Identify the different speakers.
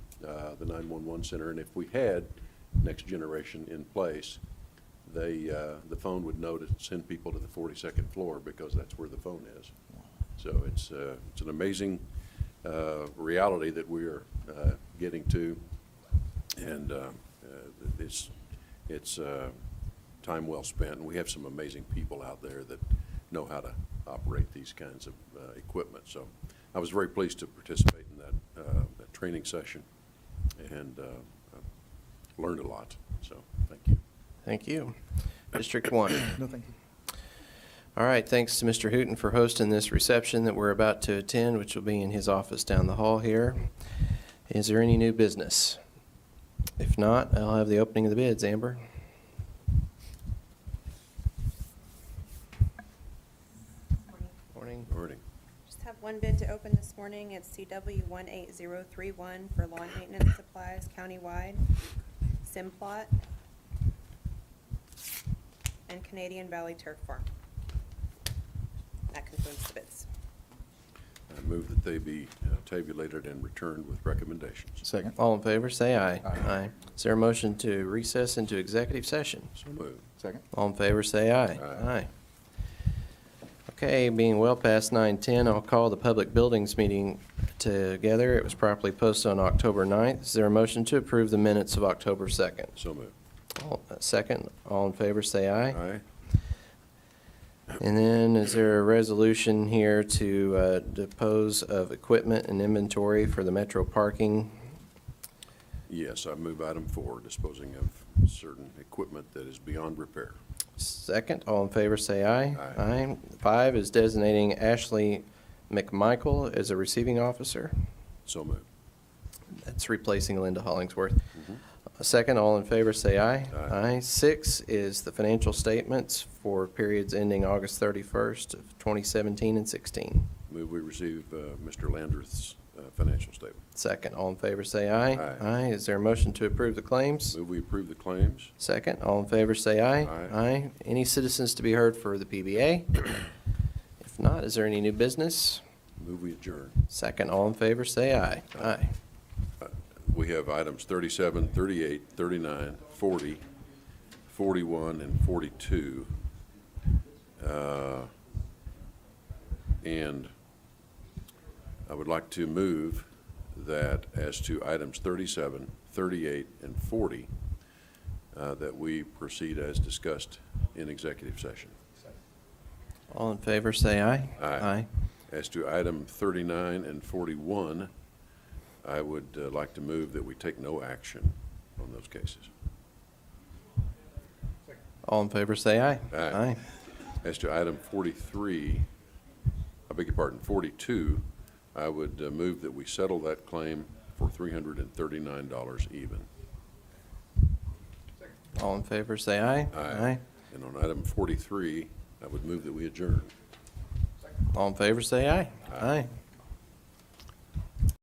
Speaker 1: uh, the 911 center, and if we had next generation in place, they, uh, the phone would know to send people to the 42nd floor because that's where the phone is. So it's, uh, it's an amazing uh, reality that we are uh, getting to, and uh, uh, it's, it's uh, time well spent, and we have some amazing people out there that know how to operate these kinds of uh, equipment. So I was very pleased to participate in that, uh, that training session, and uh, I learned a lot, so thank you.
Speaker 2: Thank you. District One.
Speaker 3: No, thank you.
Speaker 2: All right, thanks to Mr. Hooton for hosting this reception that we're about to attend, which will be in his office down the hall here. Is there any new business? If not, I'll have the opening of the bids. Amber? Morning.
Speaker 1: Morning.
Speaker 4: Just have one bid to open this morning. It's CW 18031 for lawn maintenance supplies countywide, Simplot, and Canadian Valley Turf Farm. That concludes the bids.
Speaker 1: I move that they be uh, tabulated and returned with recommendations.
Speaker 3: Second.
Speaker 2: All in favor, say aye.
Speaker 3: Aye.
Speaker 2: Is there a motion to recess into executive session?
Speaker 1: So moved.
Speaker 3: Second.
Speaker 2: All in favor, say aye.
Speaker 1: Aye.
Speaker 2: Okay, being well past 9:10, I'll call the public buildings meeting together. It was properly posted on October 9th. Is there a motion to approve the minutes of October 2nd?
Speaker 1: So moved.
Speaker 2: All- uh, Second, all in favor, say aye.
Speaker 1: Aye.
Speaker 2: And then is there a resolution here to uh, depose of equipment and inventory for the metro parking?
Speaker 1: Yes, I move item four, disposing of certain equipment that is beyond repair.
Speaker 2: Second, all in favor, say aye.
Speaker 1: Aye.
Speaker 2: Five is designating Ashley McMichael as a receiving officer.
Speaker 1: So moved.
Speaker 2: That's replacing Linda Hollingsworth. A Second, all in favor, say aye.
Speaker 1: Aye.
Speaker 2: Six is the financial statements for periods ending August 31st of 2017 and 16.
Speaker 1: Move we receive uh, Mr. Landreth's uh, financial statement.
Speaker 2: Second, all in favor, say aye.
Speaker 1: Aye.
Speaker 2: Is there a motion to approve the claims?
Speaker 1: Move we approve the claims.
Speaker 2: Second, all in favor, say aye.
Speaker 1: Aye.
Speaker 2: Any citizens to be heard for the PBA? If not, is there any new business?
Speaker 1: Move we adjourn.
Speaker 2: Second, all in favor, say aye.
Speaker 1: Aye. We have items 37, 38, 39, 40, 41, and 42. Uh, And I would like to move that as to items 37, 38, and 40, uh, that we proceed as discussed in executive session.
Speaker 2: All in favor, say aye.
Speaker 1: Aye. As to item 39 and 41, I would uh, like to move that we take no action on those cases.
Speaker 2: All in favor, say aye.
Speaker 1: Aye. As to item 43, I beg your pardon, 42, I would uh, move that we settle that claim for $339 even.
Speaker 2: All in favor, say aye.
Speaker 1: And on item 43, I would move that we adjourn.
Speaker 2: All in favor, say aye.
Speaker 1: Aye.
Speaker 2: Aye.